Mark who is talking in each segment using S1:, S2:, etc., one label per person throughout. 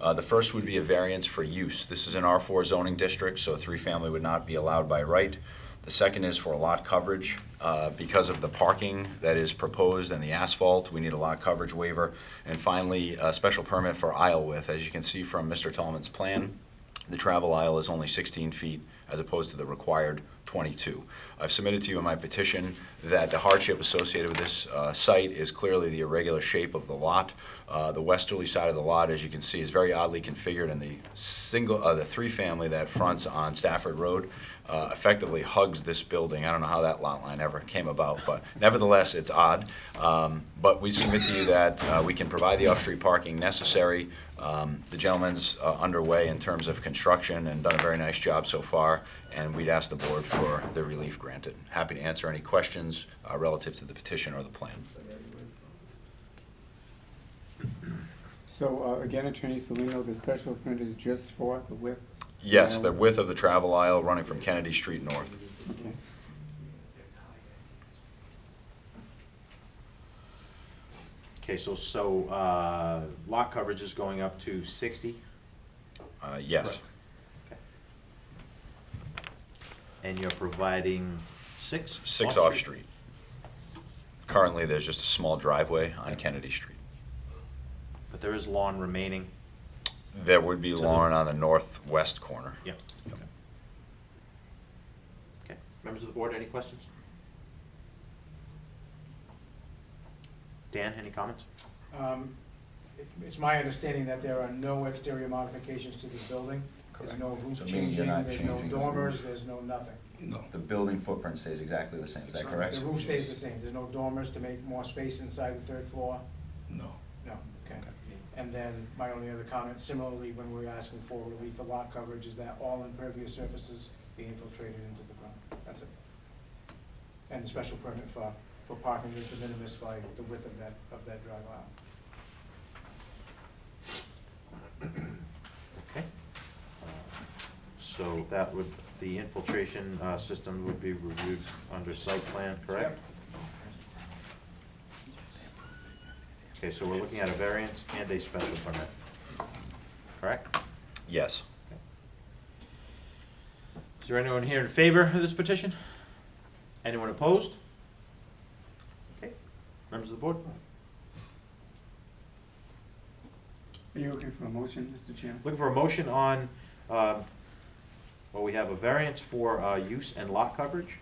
S1: Uh, The first would be a variance for use. This is an R4 zoning district, so a three-family would not be allowed by right. The second is for lot coverage. Uh, Because of the parking that is proposed and the asphalt, we need a lot coverage waiver. And finally, a special permit for aisle width. As you can see from Mr. Tellman's plan, the travel aisle is only 16 feet as opposed to the required 22. I've submitted to you in my petition that the hardship associated with this uh, site is clearly the irregular shape of the lot. Uh, The westerly side of the lot, as you can see, is very oddly configured, and the single, uh, the three-family that fronts on Stafford Road uh, effectively hugs this building. I don't know how that lot line ever came about, but nevertheless, it's odd. Um, But we submit to you that uh, we can provide the off-street parking necessary. Um, The gentleman's uh, underway in terms of construction and done a very nice job so far, and we'd ask the board for the relief granted. Happy to answer any questions uh, relative to the petition or the plan.
S2: So uh, again, Attorney Salino, the special permit is just for the width?
S1: Yes, the
S2: Now-
S1: width of the travel aisle running from Kennedy Street north.
S2: Okay.
S3: Okay, so, so, uh, lot coverage is going up to sixty,
S1: Uh, Yes,
S3: and you're providing six?
S1: six off-street. Currently, there's just a small driveway on Kennedy Street.
S3: But there is lawn remaining,
S1: There would be
S3: To the-
S1: Lauren on the northwest corner.
S3: yeah. Okay. Okay, members of the board, any questions? Dan, any comments?
S4: Um, it- It's my understanding that there are no exterior modifications to this building. There's no roof
S1: So it means
S4: changing,
S1: you're not
S4: there's no
S1: changing the
S4: dormers,
S1: roof.
S4: there's no nothing.
S1: The building footprint stays exactly the same, is that correct?
S4: The roof stays the same, there's no dormers to make more space inside the third floor?
S5: No.
S4: No, okay. And then my only other comment, similarly, when we're asking for relief for lot coverage, is that all impervious surfaces be infiltrated into the ground. That's it. And the special permit for, for parking is de minimis by the width of that, of that drive aisle.
S3: Okay. Uh, So that would, the infiltration, uh, system would be reviewed under site plan, correct? Okay, so we're looking at a variance and a special permit, correct?
S1: Yes.
S3: Is there anyone here in favor of this petition? Anyone opposed? Okay, members of the board?
S2: Are you looking for a motion, Mr. Chairman?
S3: Looking for a motion on, um, well, we have a variance for uh, use and lot coverage?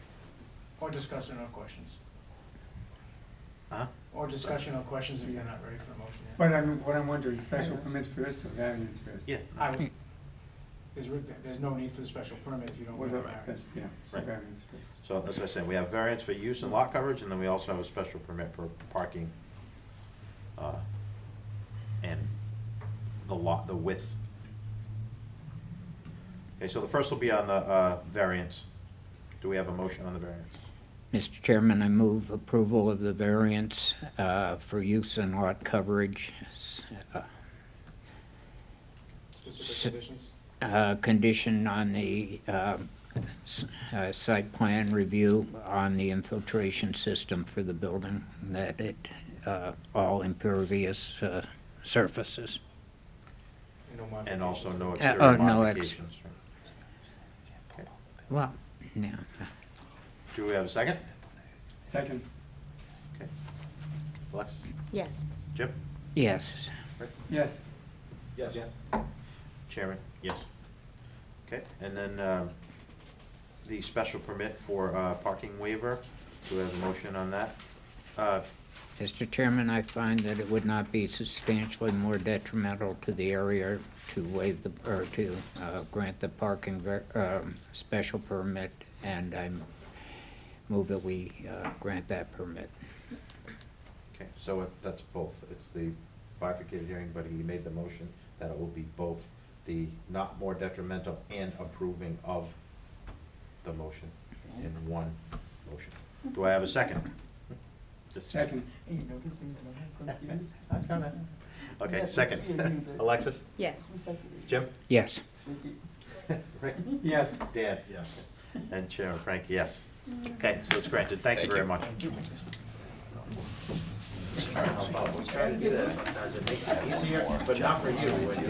S4: Or discussion or questions?
S3: Huh?
S4: Or discussion or questions if you're not ready for a motion yet.
S2: But I'm, what I'm wondering, special permit first or variance first?
S3: Yeah.
S4: I would, there's, re- there's no need for the special permit if you don't
S2: Well,
S4: want to
S2: that-
S4: marry.
S2: that's, yeah, so
S3: Right.
S2: variance first.
S3: So as I said, we have variance for use and lot coverage, and then we also have a special permit for parking. uh, And the lot, the width. Okay, so the first will be on the uh, variance. Do we have a motion on the variance?
S6: Mr. Chairman, I move approval of the variance uh, for use and lot coverage, s- uh,
S4: Specific conditions?
S6: uh, condition on the uh, s- uh, site plan review on the infiltration system for the building, that it, uh, all impervious uh, surfaces.
S4: No modifications.
S3: And also no
S6: oh,
S3: exterior
S6: no ex-
S3: modifications. right?
S6: Well, yeah,
S3: Do we have a second?
S2: Second,
S3: Lex?
S7: Yes.
S3: Jim?
S6: yes.
S2: yes,
S3: Yes. Chairman? Yes. Okay, and then um, the special permit for uh, parking waiver, do we have a motion on that? Uh,
S6: Mr. Chairman, I find that it would not be substantially more detrimental to the area to waive the, or to uh, grant the parking ver- um, special permit, and I move that we uh, grant that permit.
S3: Okay, so it- that's both, it's the bifurcated hearing, but he made the motion that it will be both the not more detrimental and approving of the motion in one motion. Do I have a second?
S2: second,
S8: You noticing that I'm confused?
S3: I kinda- Okay, second. Alexis?
S7: Yes.
S3: Jim?
S6: Yes.
S3: Rick?
S2: yes.
S3: Dan? Yes. And Chairman Frank, yes. Okay, so it's granted, thank
S1: Thank
S3: you very
S1: you.
S3: much. Sorry, I'll follow. Try to do that sometimes. It makes it easier, but not for you.